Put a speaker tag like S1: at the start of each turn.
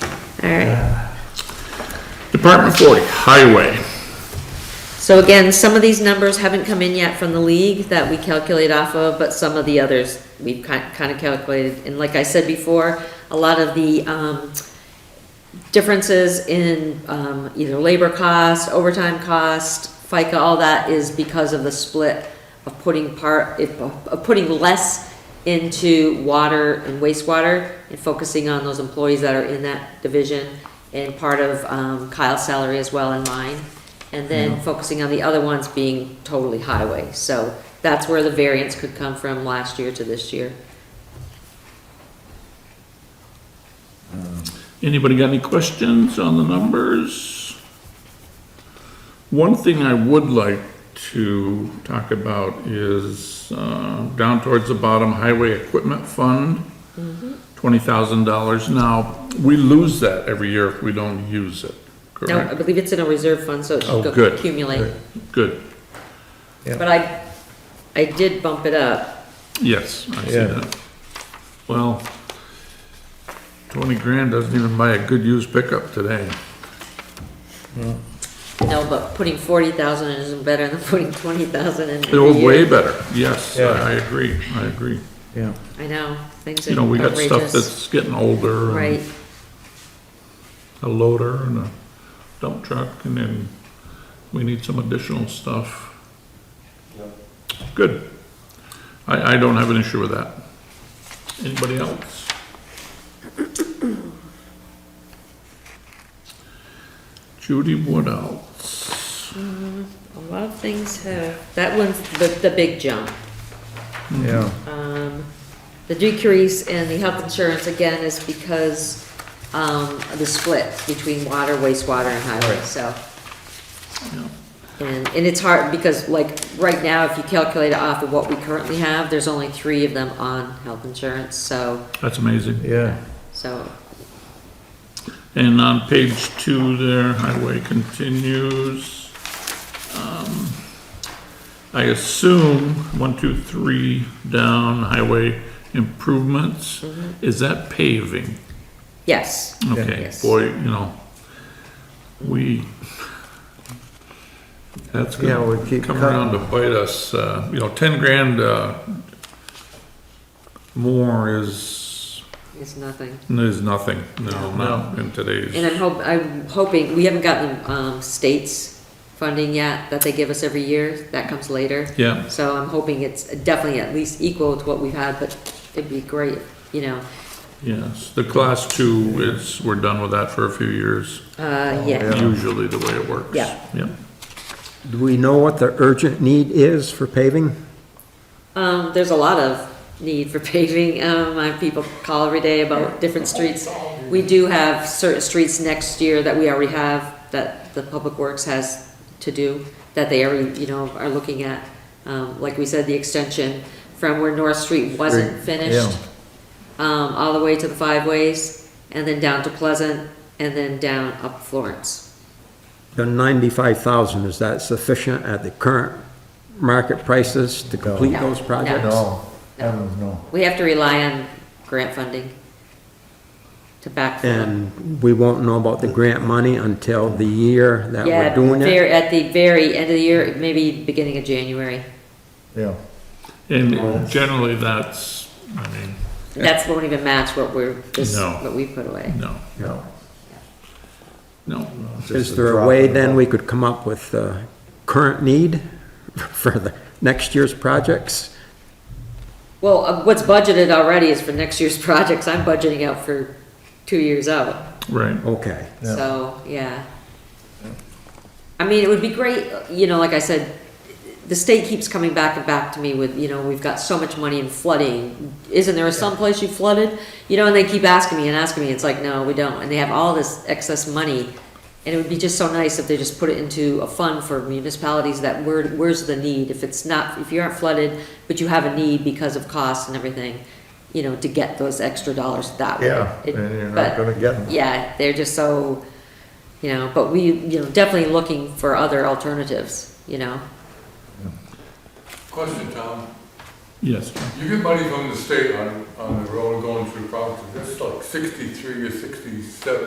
S1: All right.
S2: Department 40, highway.
S1: So again, some of these numbers haven't come in yet from the league that we calculate off of, but some of the others we've kind of calculated. And like I said before, a lot of the, um, differences in, um, either labor cost, overtime cost, FICA, all that is because of the split of putting part, of putting less into water and wastewater and focusing on those employees that are in that division and part of um, Kyle's salary as well and mine. And then
S2: Mm-hmm.
S1: focusing on the other ones being totally highway. So that's where the variance could come from last year to this year.
S2: Anybody got any questions on the numbers? One thing I would like to talk about is, uh, down towards the bottom, Highway Equipment Fund, twenty thousand dollars. Now, we lose that every year if we don't use it,
S1: No, I
S2: correct?
S1: believe it's in a reserve fund, so it
S2: Oh,
S1: should go
S2: good.
S1: accumulate.
S2: Good,
S1: But I, I did bump it up.
S2: yes, I see
S3: Yeah.
S2: that. Well, twenty grand doesn't even buy a good used pickup today.
S1: No, but putting forty thousand in isn't better than putting twenty thousand in.
S2: It
S1: every
S2: was
S1: year.
S2: way better, yes, I
S3: Yeah.
S2: I agree, I agree.
S3: Yeah.
S1: I know, things are outrageous.
S2: You know, we got stuff that's getting older,
S1: Right,
S2: and a loader and a dump truck, and then we need some additional stuff. Good. I, I don't have an issue with that. Anybody else? Judy, what else?
S1: a lot of things have, that one's the, the big jump.
S4: Mm-hmm.
S3: Yeah.
S1: Um, the decrease in the health insurance again is because, um, of the split between water, wastewater and highway, so.
S2: Yeah.
S1: And, and it's hard because like right now, if you calculate it off of what we currently have, there's only three of them on health insurance, so,
S2: That's amazing.
S3: Yeah.
S1: so
S2: And on page two there, highway continues. Um, I assume, one, two, three down, highway improvements,
S1: mm-hmm.
S2: is that paving?
S1: Yes,
S2: Okay,
S1: Yes.
S2: boy, you know, we, that's
S3: Yeah, we
S2: gonna
S3: keep
S2: come
S3: cutting.
S2: around to bite us, uh, you know, ten grand, uh, more is,
S1: it's nothing.
S2: is nothing, no, not in today's.
S1: And I'm hope, I'm hoping, we haven't gotten, um, states funding yet that they give us every year, that comes later.
S2: Yeah.
S1: So I'm hoping it's definitely at least equal to what we've had, but it'd be great, you know,
S2: Yes, the class two is, we're done with that for a few years,
S1: uh, yeah.
S3: Yeah.
S2: usually the way it works.
S1: Yeah.
S2: Yeah,
S3: Do we know what the urgent need is for paving?
S1: Um, there's a lot of need for paving, um, I have people call every day about different streets. We do have certain streets next year that we already have, that the Public Works has to do, that they already, you know, are looking at. Um, like we said, the extension from where North Street wasn't
S3: Street,
S1: finished, um, all the way to the Five Ways, and then down to Pleasant, and then down up Florence.
S3: The ninety-five thousand, is that sufficient at the current market prices to complete
S1: No.
S3: those projects?
S4: No, heavens, no.
S1: We have to rely on grant funding to backfill.
S3: And we won't know about the grant money until the year that
S1: Yeah,
S3: we're doing
S1: ver-
S3: it?
S1: At the very end of the year, maybe beginning of January.
S4: Yeah,
S2: and generally that's, I mean,
S1: That's won't even match what we're, this,
S2: No.
S1: what we put away.
S2: no,
S4: no.
S2: no.
S3: Is there a way then we could come up with the current need for the next year's projects?
S1: Well, uh, what's budgeted already is for next year's projects. I'm budgeting out for two years out,
S2: Right,
S3: Okay,
S4: Yeah.
S1: so, yeah. I mean, it would be great, you know, like I said, the state keeps coming back and back to me with, you know, we've got so much money in flooding. Isn't there some place you flooded? You know, and they keep asking me and asking me. It's like, no, we don't. And they have all this excess money. And it would be just so nice if they just put it into a fund for municipalities that where, where's the need? If it's not, if you aren't flooded, but you have a need because of costs and everything, you know, to get those extra dollars that way.
S4: Yeah,
S1: It-
S4: and you're
S1: but-
S4: not gonna get 'em.
S1: Yeah, they're just so, you know, but we, you know, definitely looking for other alternatives, you know?
S5: Question, Tom.
S2: yes, John.
S5: You get money from the state on, on the road going through Providence. That's like sixty-three or sixty-seven